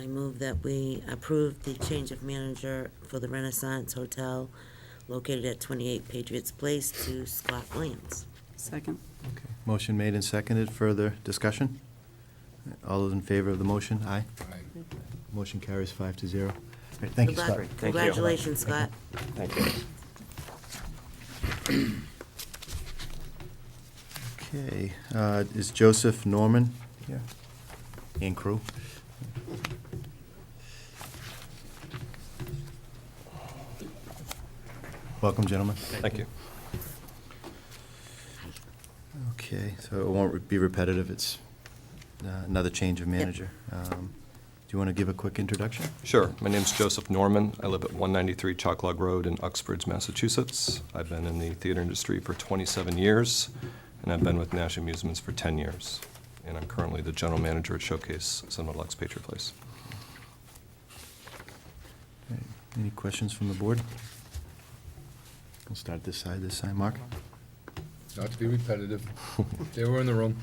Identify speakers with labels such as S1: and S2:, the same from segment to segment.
S1: I move that we approve the change of manager for the Renaissance Hotel located at 28 Patriots Place to Scott Williams.
S2: Second.
S3: Okay. Motion made and seconded. Further discussion? All those in favor of the motion? Aye. Motion carries five to zero. All right, Thank you, Scott.
S1: Congrat- Congratulations, Scott.
S4: Thank you.
S3: Okay, uh, is Joseph Norman here? And crew? Welcome, gentlemen.
S4: Thank you.
S3: Okay, so it won't be repetitive. It's uh, another change of manager. Um, Do you want to give a quick introduction?
S4: Sure. My name's Joseph Norman. I live at 193 Chalklog Road in Uxbridge, Massachusetts. I've been in the theater industry for 27 years, and I've been with Nash Amusements for 10 years. And I'm currently the general manager at Showcase Cinema Lux Patriot Place.
S3: Any questions from the board? We'll start this side, this side. Mark?
S5: Not to be repetitive, they were in the room.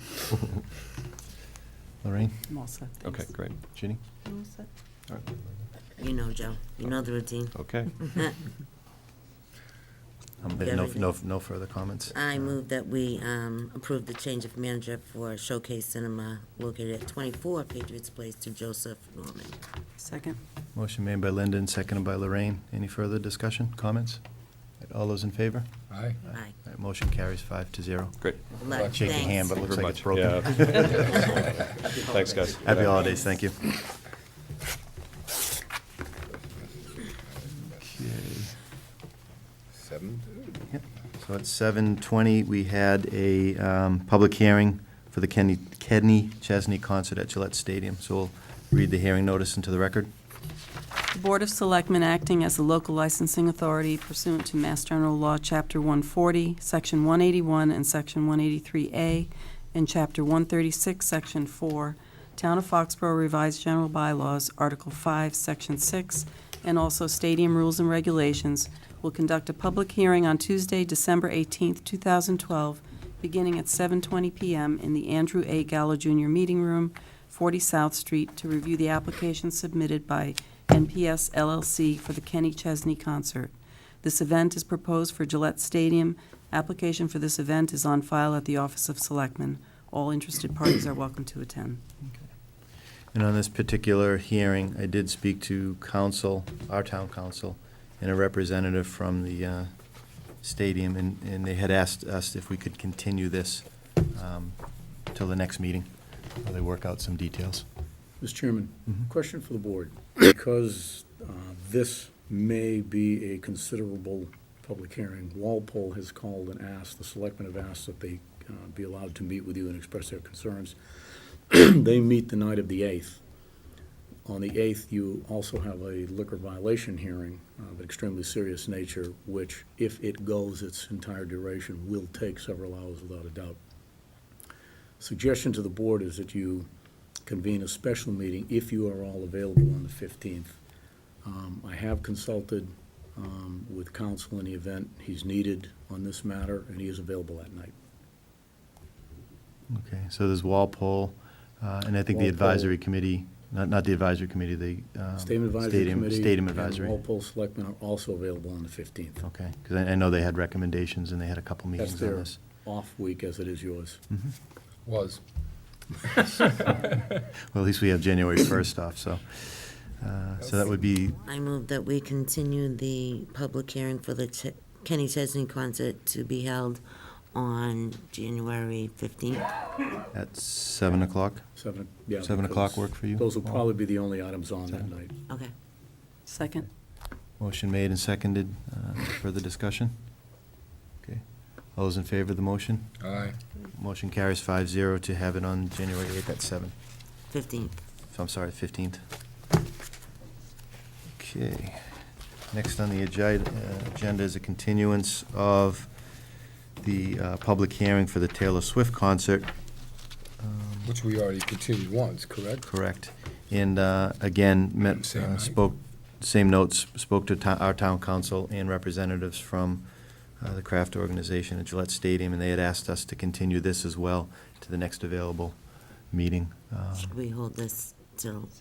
S3: Lorraine?
S2: I'm all set. thanks.
S4: Okay, great.
S3: Ginny?
S2: I'm all set.
S4: All right.
S1: You know, Joe, you know the routine.
S4: Okay.
S3: Um, No, no, no further comments? Uh,
S1: I move that we um, approve the change of manager for Showcase Cinema located at 24 Patriots Place to Joseph Norman.
S2: Second.
S3: Motion made by Linda and seconded by Lorraine. Any further discussion, comments? All those in favor?
S5: Aye.
S1: Aye.
S3: All right, Motion carries five to zero.
S4: Great.
S1: Good luck.
S3: Shake your hand, but it
S1: Thanks.
S3: looks
S4: Thank you
S3: like it's
S4: very
S3: broken.
S4: much. Thanks, guys.
S3: Happy holidays, thank you.
S5: Seven?
S3: So at seven twenty, we had a um, public hearing for the Kenny, Kenny Chesney concert at Gillette Stadium. So we'll read the hearing notice into the record.
S2: The Board of Selectmen acting as the local licensing authority pursuant to Mass General Law, Chapter 140, Section 181 and Section 183A, and Chapter 136, Section 4, Town of Foxborough Revised General Bylaws, Article 5, Section 6, and also Stadium Rules and Regulations, will conduct a public hearing on Tuesday, December 18th, 2012, beginning at 7:20 PM in the Andrew A. Gallo Jr. Meeting Room, 40 South Street, to review the application submitted by NPS LLC for the Kenny Chesney Concert. This event is proposed for Gillette Stadium. Application for this event is on file at the Office of Selectmen. All interested parties are welcome to attend.
S3: And on this particular hearing, I did speak to council, our town council, and a representative from the uh, stadium, and, and they had asked us if we could continue this um, till the next meeting, while they work out some details.
S6: Mr. Chairman,
S3: Mhm.
S6: question for the board. Because uh, this may be a considerable public hearing, Walpole has called and asked, the selectmen have asked that they uh, be allowed to meet with you and express their concerns. They meet the night of the 8th. On the 8th, you also have a liquor violation hearing of extremely serious nature, which, if it goes its entire duration, will take several hours without a doubt suggestion to the board is that you convene a special meeting if you are all available on the 15th. Um, I have consulted um, with counsel in the event he's needed on this matter, and he is available that night.
S3: Okay, so there's Walpole, uh, and I think the advisory committee, not, not the advisory committee, the. um,
S6: Stadium Advisory
S3: stadium-
S6: Committee.
S3: Stadium
S6: And
S3: advisory, Oh.
S6: Walpole Selectmen are also available on the 15th.
S3: okay, because I, I know they had recommendations and they had a couple
S6: That's
S3: meetings on
S6: their
S3: this.
S6: off week, as it is yours.
S3: Hmm.
S5: Was.
S3: Well, at least we have January first off, so, uh, so that would be
S1: I move that we continue the public hearing for the Ch- Kenny Chesney concert to be held on January 15th.
S3: at seven o'clock.
S6: Seven, yeah.
S3: Seven
S6: because
S3: o'clock work for you? Oh.
S6: Those will
S3: Paul?
S6: probably be the only items on that night.
S1: Okay.
S2: Second.
S3: Motion made and seconded. Uh, Further discussion? Okay. All those in favor of the motion?
S5: Aye.
S3: Motion carries five zero to have it on January 8th at 7.
S1: 15th.
S3: So I'm sorry, 15th. Okay. Next on the agi- uh, agenda is a continuance of the uh, public hearing for the Taylor Swift concert. Um,
S5: Which we already continued once, correct?
S3: Correct. And uh, again, met,
S5: Same
S3: uh,
S5: night.
S3: spoke, same notes, spoke to to- our town council and representatives from uh, the craft organization at Gillette Stadium, and they had asked us to continue this as well to the next available meeting. Um,
S1: Should we hold this till